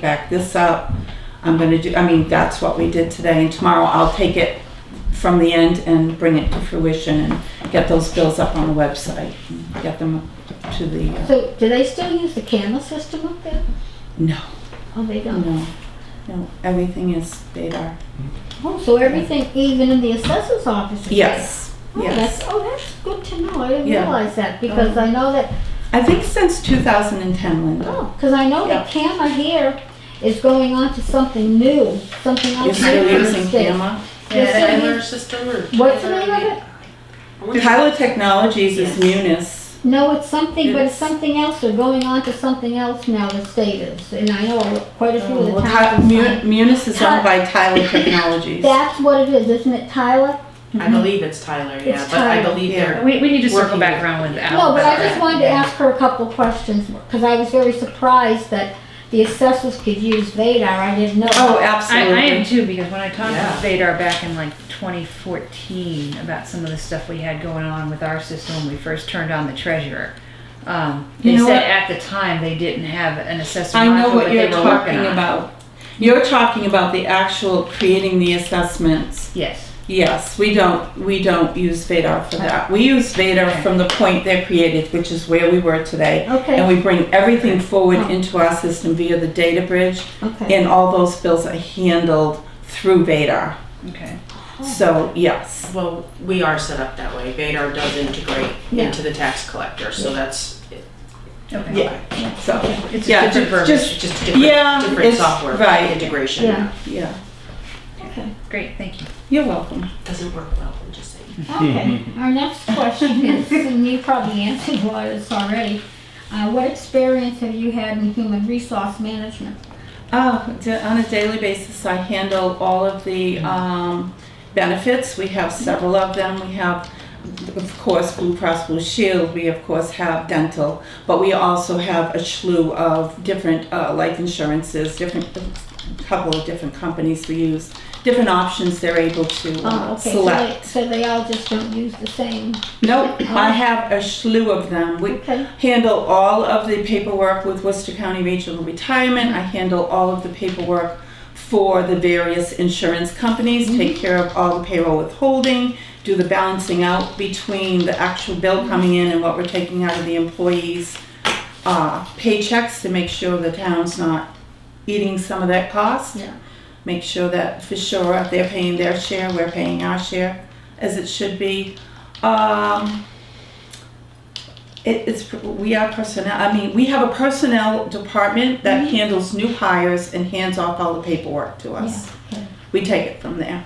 back this up. I'm gonna do, I mean, that's what we did today, and tomorrow I'll take it from the end and bring it to fruition and get those bills up on the website, and get them to the, uh, So do they still use the camera system up there? no, Oh, they don't. no, no, everything is data. Oh, so everything, even in the assessor's office is there? Yes, Oh, that's, yes. oh, that's good to know. I didn't Yeah. realize that because I know that, I think since 2010, Linda. oh, because I know Yeah. the camera here is going on to something new, something You're else. still new in the using state. camera? Yes, Yeah, sir. Tyler system or? What's the name of it? Tyler Technologies is Munis. No, it's something, but it's It's- something else. They're going on to something else now, the state is. And I know quite a few of the Oh, Well, Ty- towns. Mu- are- Munis is owned by Tyler Technologies. That's what it is, isn't it, Tyler? I believe it's Tyler, yeah, It's but I Tyler, believe yeah. they're, We, we need to circle Working back with- around with Al. No, but I just about wanted to ask her a couple questions, because I was very surprised that the assessors could use Vadar, I didn't know. Oh, that. I, absolutely. I am too, because when I talked Yeah. to Vadar back in like twenty fourteen about some of the stuff we had going on with our system when we first turned on the treasurer. Um, You they know said what? at the time they didn't have an assessment. I know module, what but they you're were working talking on it. about. You're talking about the actual creating the assessments. Yes, Yes, we don't, we don't use Vadar for that. We use Vadar from the point they're created, which is where we were today. And Okay, we bring everything forward into our system via the data bridge okay. and all those bills are handled through Vadar. okay. Oh, So, yes. well, we are set up that way. Vadar does integrate Yeah. into the tax collector, so that's, Okay. Yeah. So, It's Yeah, a different ju- verbiage. just- it's just different, Yeah, different it's- software right. integration. Yeah. yeah, Okay, Great, thank you. you're welcome. Doesn't work well, I'm just saying. okay. Our next question is, and you probably answered a lot of this already. Uh, what experience have you had in human resource management? Oh, d- on a daily basis, I handle all of the um, benefits. We have several of them. We have, of course, Blue Cross Blue Shield. We, of course, have dental, but we also have a slew of different uh, life insurances, different, a couple of different companies we use, different options they're able to Oh, uh, okay, so they, select. so they all just don't use the same, Nope, I have a slew of them. We, okay, handle all of the paperwork with Worcester County Regional Retirement. I handle all of the paperwork for the various insurance companies, take care of all the payroll withholding, do the balancing out between the actual bill coming in and what we're taking out of the employees' uh, paychecks to make sure the town's not eating some of that cost. Yeah. Make sure that for sure they're paying their share, we're paying our share, as it should be. Um, it, it's, we are personnel, I mean, we have a personnel department Mm-hmm. that handles new hires and hands off all the paperwork to us. Yeah, okay. We take it from there.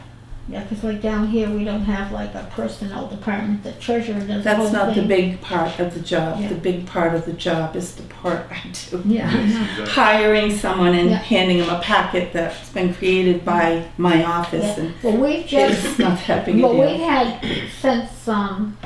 yeah, cause like down here, we don't have like a personnel department, the treasurer does the That's whole thing. not the big part of the job. Yeah. The big part of the job is the part I do. Yeah, I know. Hiring someone and Yeah. handing them a packet that's been created by my office and Well, we've just, it's not that big a well, we've deal. had, since, um,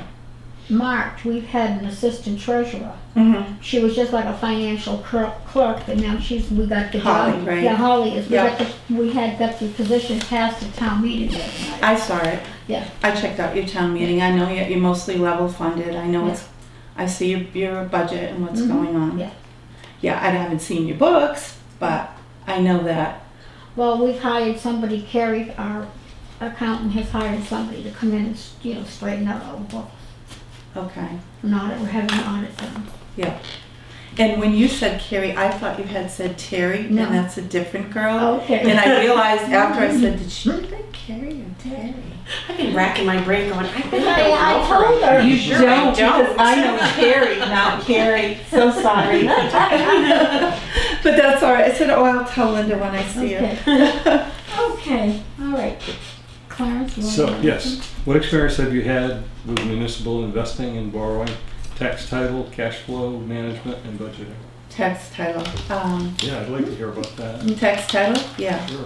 March, we've had an assistant treasurer. Mhm. She was just like a financial clerk, clerk, and now she's, we got the job. Holly, right? Yeah, Holly is, we Yeah. got the, we had got the position passed at town meeting the other night. I saw it. Yeah. I checked out your town meeting. I know you're you're mostly level funded. I know it's, I see your, your budget and what's Mhm. going on. Yeah. Mm-hmm. Yeah, I haven't seen your books, but I know that. Well, we've hired somebody, Carrie, our accountant has hired somebody to come in and, you know, straighten out all the books. Okay. An audit, we're having an audit done. And when you said Carrie, I thought you had said Terry, No. and that's a different girl. And Okay. I realized after I said, did she say Carrie or Terry? I've been racking my brain going, I think I I, I don't know. told her. You Sure, I don't, because don't. I know Carrie, not Carrie. So sorry. but that's all right. I said, oh, I'll tell Linda when I see Okay. her. Okay, all right. Clarence, you want So, to- yes, what experience have you had with municipal investing and borrowing, tax title, cash flow management, and budgeting? Text title. Um, Yeah, I'd like to hear about that. Text title, yeah. Sure.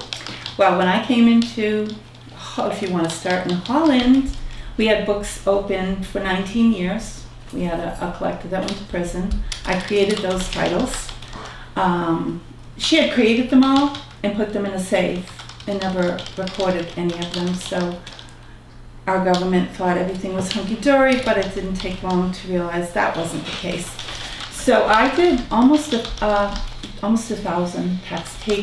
Well, when I came into, Ho- if you want to start in Holland, we had books open for 19 years. We had a, a collector that went to prison. I created those titles. Um, she had created them all and put them in a safe and never recorded any of them. So our government thought everything was hunky dory, but it didn't take long to realize that wasn't the case. So I did almost a, uh, almost a thousand tax take